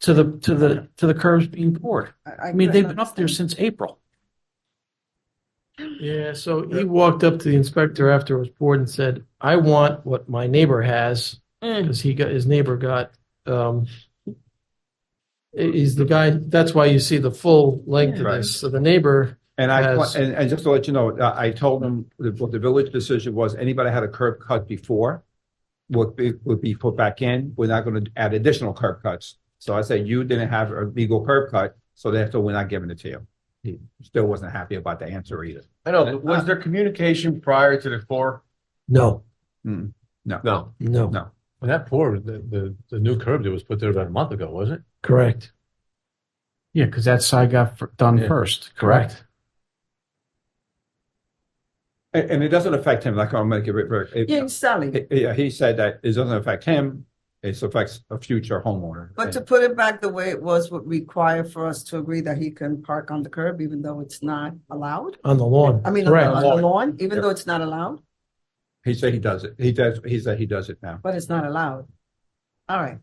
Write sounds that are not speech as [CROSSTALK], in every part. to the, to the, to the curves being poured. I mean, they've been up there since April. Yeah, so he walked up to the inspector after it was poured and said, I want what my neighbor has, Mm. because he got, his neighbor got, um, he- he's the guy, that's why you see the full length of Right. this. So the neighbor, And I, Yes. and, and just to let you know, uh, I, I told them that what the village decision was, anybody had a curb cut before would be, would be put back in. We're not gonna add additional curb cuts. So I said, you didn't have a legal curb cut, so therefore we're not giving it to you. He still wasn't happy about the answer either. I know, but was there communication prior to the pour? No, No. no, Hmm. No. Well, that pour, the, the, the new curb that was put there about a month ago, wasn't it? correct. Yeah, because that side got f- done Yeah. first, correct? And, and it doesn't affect him, like I'm gonna give it, very- it- Yeah, Sally, it- yeah, he said that it doesn't affect him, it affects a future homeowner. But to put it back the way it was would require for us to agree that he can park on the curb even though it's not allowed? On the lawn. I mean, uh, on the- correct. on the lawn, even Yeah. though it's not allowed, He said he does it, he does, he said he does it now. but it's not allowed. All right,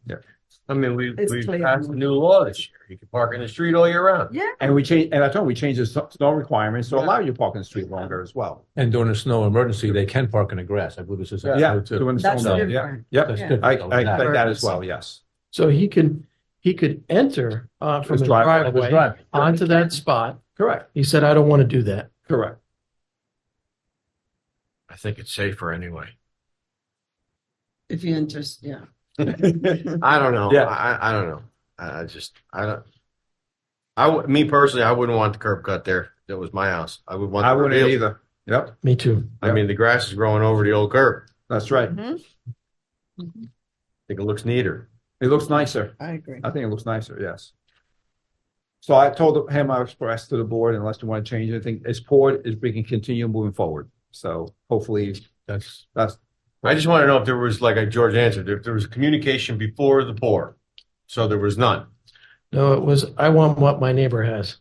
I mean, we, It's we clear. passed a new law this year. You can park in the street all year round. And we change, and I told him we changed the snow- snow requirements to allow you to park in the street longer as well. And during a snow emergency, they can park in the grass. I believe this is. in Yeah, code too. doing the that's snow, yeah. different. Yep, That's yeah. good. I, So I that- expect that as well, yes. So he could, he could enter, uh, from His his driveway. that was driveway driving. onto that spot. Correct, He said, I don't want to do that. [LAUGHS] correct. I think it's safer anyway. If you interest, yeah. I don't know. Yeah. I, I- I don't know. I, I just, I don't. I, wou- me personally, I wouldn't want the curb cut there. That was my house. I would want. I the wouldn't real- either. Yep, Me too. I mean, the grass is growing over the old curb. that's right. Mm-hmm. Mhm. I think it looks neater. It looks nicer. I agree. I think it looks nicer, yes. So I told him, I expressed to the board, unless you want to change anything, it's poured, is we can continue moving forward. So hopefully, That's, that's, I just want to know if there was, like George answered, if there was communication before the pour. So there was none No, it was, I want what my neighbor has.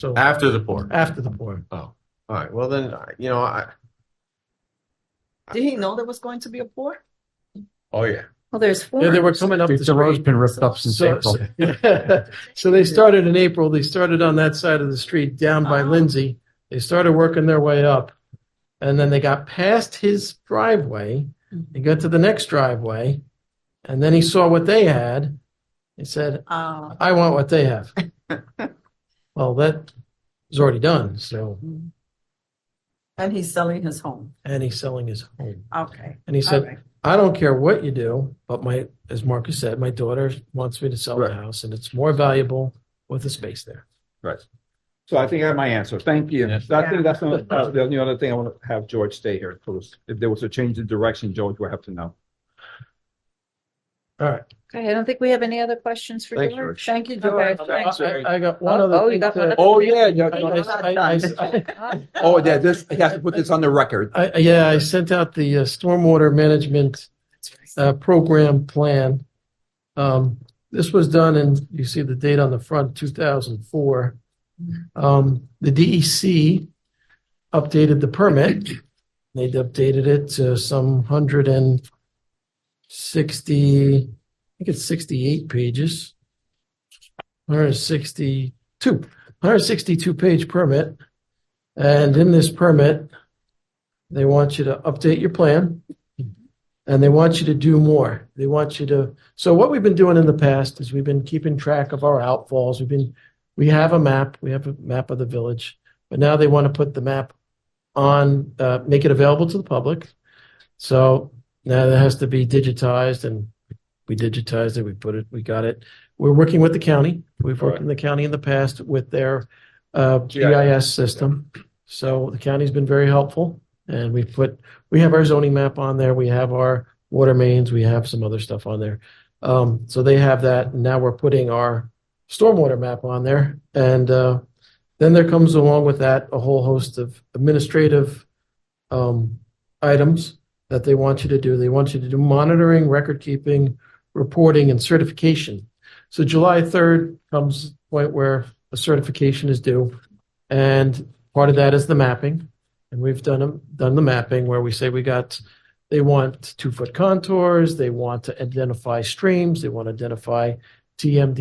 So after the pour. after the pour. Oh, all right. Well, then, I- you know, I, Did he know there was going to be a pour? oh, yeah. Well, there's Yeah, four. they were coming up the The road's street. been ripped up since So, April. so- [LAUGHS] so they started in April. They started on that side of the street down by Ah. Lindsay. They started working their way up. And then they got past his driveway. They got to the next driveway. And then he saw what they had. He said, Uh, I want what they have. well, that was already done. So, mm. and he's selling his home. and he's selling his home. Okay. And he All said, right. I don't care what you do, but my, as Marcus said, my daughter wants me to sell Right. the house and it's more valuable with the space there. so I think I have my answer. Thank you. I Yes. think that's the uh, the only other thing I want to have George stay here, please. If there was a change in direction, George would have to know. All right. Okay, I don't think we have any other questions for Thanks, George. George. Thank you, right. George. I, Thanks. I- I got one Oh, other. oh, you thing got to- one other- Oh, yeah, yeah. I- no, I- I- I- I- Oh, yeah, this, he has to put this on the record. I- Yeah, I sent out the uh, stormwater management uh, program plan. Um, This was done in, you see the date on the front, 2004. Um, The DEC updated the permit. They updated it to some 160, I think it's 68 pages. 162, 162-page permit. And in this permit, they want you to update your plan and they want you to do more. They want you to. So, what we've been doing in the past is we've been keeping track of our outfalls. We've been, we have a map, we have a map of the village, but now they want to put the map on, uh, make it available to the public. So, now that has to be digitized and we digitized it, we put it, we got it. We're working with the county. We've worked in the county in the past with their uh, GIS system. So, the county's been very helpful. And we put, we have our zoning map on there. We have our water mains. We have some other stuff on there. Um, so they have that. And now we're putting our stormwater map on there. And uh, then there comes along with that a whole host of administrative um, items that they want you to do. They want you to do monitoring, record keeping, reporting, and certification. So July 3rd comes the point where a certification is due. And part of that is the mapping and we've done them done the mapping where we say we got they want two foot contours they want to identify streams they want to identify TMD